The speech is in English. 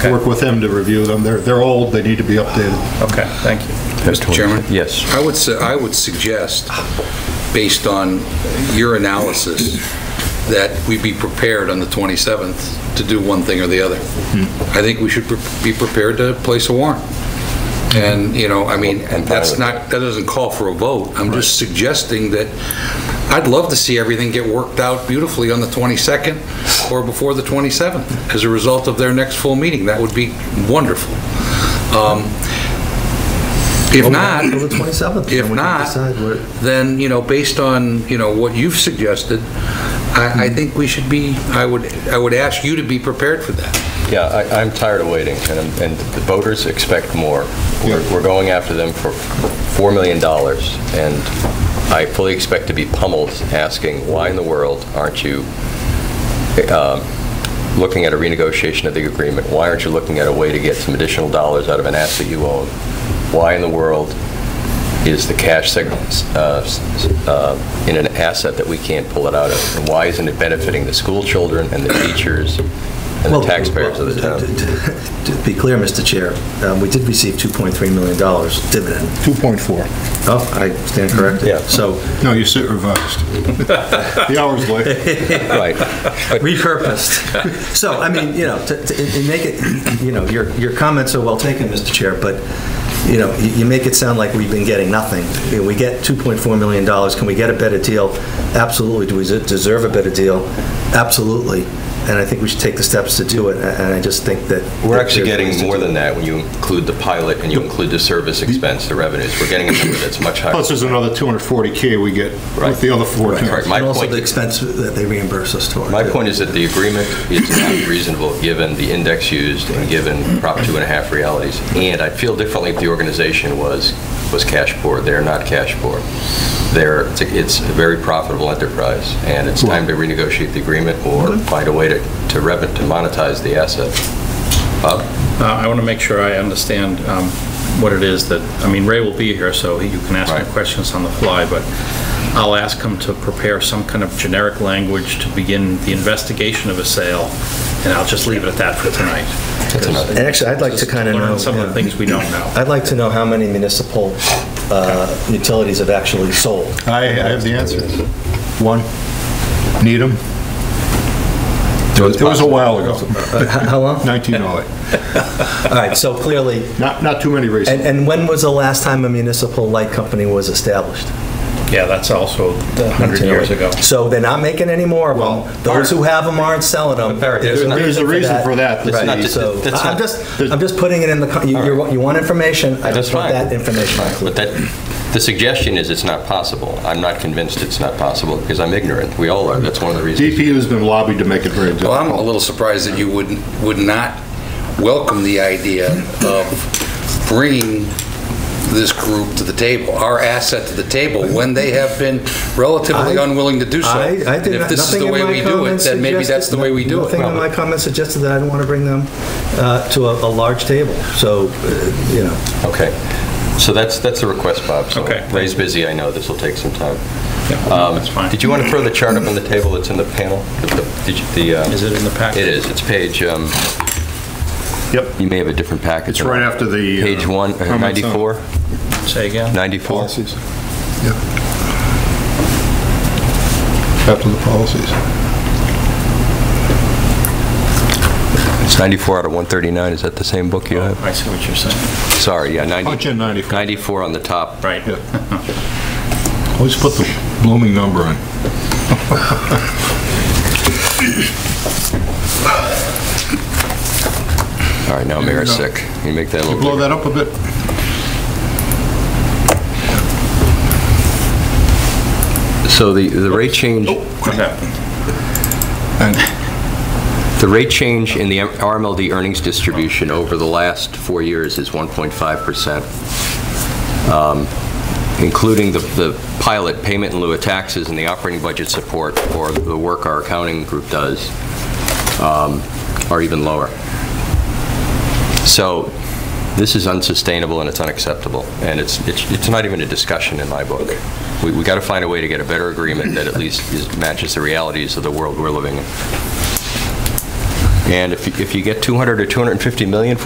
work with him to review them. They're, they're old, they need to be updated. Okay, thank you. Mr. Chairman? Yes. I would, su- I would suggest, based on your analysis, that we be prepared on the 27th to do one thing or the other. I think we should pre- be prepared to place a warrant. And, you know, I mean, that's not, that doesn't call for a vote. I'm just suggesting that I'd love to see everything get worked out beautifully on the 22nd or before the 27th as a result of their next full meeting. That would be wonderful. Um, If not, Till the 27th. then we if can not, decide what- then, you know, based on, you know, what you've suggested, I, I Hmm. think we should be, I would, I would ask you to be prepared for that. Yeah, I- I'm tired of waiting, and I'm- and the voters expect more. We're we're going after them for $4 million, and I fully expect to be pummeled asking, why in the world aren't you um, looking at a renegotiation of the agreement? Why aren't you looking at a way to get some additional dollars out of an asset you own? Why in the world is the cash seg- uh, s- uh, in an asset that we can't pull it out of? And why isn't it benefiting the school children and the teachers and the Well, taxpayers of the well, town? To to be clear, Mr. Chair, um, we did receive $2.3 million dividend. 2.4. Oh, I stand corrected. Yeah. So No, you sit revised. The hour's late. Right. But repurposed. So, I mean, you know, to, to and make it, you know, your, your comments are well taken, Mr. Chair, but, you know, you, you make it sound like we've been getting nothing. You know, we get $2.4 million. Can we get a better deal? Absolutely. Do we des- deserve a better deal? Absolutely. And I think we should take the steps to do it, a- and I just think that. We're actually that there's ways getting to more do than it. that when you include the pilot and you include the service expense, the revenues. We're getting a number that's much higher. Plus, there's another 240K we get Right. with the other 14. Right. My And also point- the expense that they reimburse us toward. My point is that the agreement is not reasonable, given the index used and given Prop two and a half realities. And I feel differently if the organization was, was cash poor. They're not cash poor. They're, it's a- it's a very profitable enterprise, and it's time to renegotiate the agreement or find a way to, to rev, to monetize the asset. Bob? Uh, I want to make sure I understand um, what it is that, I mean, Ray will be here, so you can ask him Right. questions on the fly, but I'll ask him to prepare some kind of generic language to begin the investigation of a sale, and I'll just leave it at that for tonight. another- And actually, I'd like to Just kind of know. Learn some of the yeah. things we don't know. I'd like to know how many municipal uh, utilities have actually sold. I, I have the answer. One, Needham. It was a while ago, Uh, How how long? 1908. All right, so clearly, Not, not too many and races. and when was the last time a municipal light company was established? Yeah, that's also 100 years ago. So they're not making any more of them. Those who have them aren't selling them. There's not- there's a reason for that, that's Right, not- so that's I'm not- just, I'm just putting it in the, co- you- you want- you want information, I That's just want fine. that information. Fine, But that, the suggestion is it's not possible. I'm not convinced it's not possible because I'm ignorant. We all are. That's one of the reasons. DPU's been lobbied to make it very Well, I'm a difficult. little surprised that you wouldn't, would not welcome the idea of bringing this group to the table, our asset to the table, when they have been relatively I- unwilling to do so. I, I And did if not, this is nothing the in way my we do it, comments then maybe that's the way we do it. Nothing in my comments suggested that I don't want to bring them uh, to a, a large table, so, uh, you know. Okay. So that's, that's the request, Bob. So Okay. Ray's busy, I know. This will take some time. Yeah, Um, That's fine. Did you want to throw the chart up on the table that's in the panel? The- the- did you- the, uh, Is it in the packet? It is. It's page, um, Yep. you may have a different package. It's right after the, uh, Page one, uh, comments on- 94? Say again? 94? Policies. Yep. After the policies. It's 94 out of 139. Is that the same book you have? I see what you're saying. Sorry, yeah, 90 Oh, Punch in 94. 94 on the top. Right. Always put the blooming number in. All right, now Mayor's sick. Can you make that a little Blow bigger? that up a bit. So the, the rate change, What happened? And the rate change in the RMLD earnings distribution over the last four years is 1.5%. Um, Including the, the pilot payment in lieu of taxes and the operating budget support or the work our accounting group does um, are even lower. So this is unsustainable and it's unacceptable, and it's, it's it's not even a discussion in my book. We, we got to find a way to get a better agreement that at least is- matches the realities of the world we're living in. And if you- if you get 200 or 250 million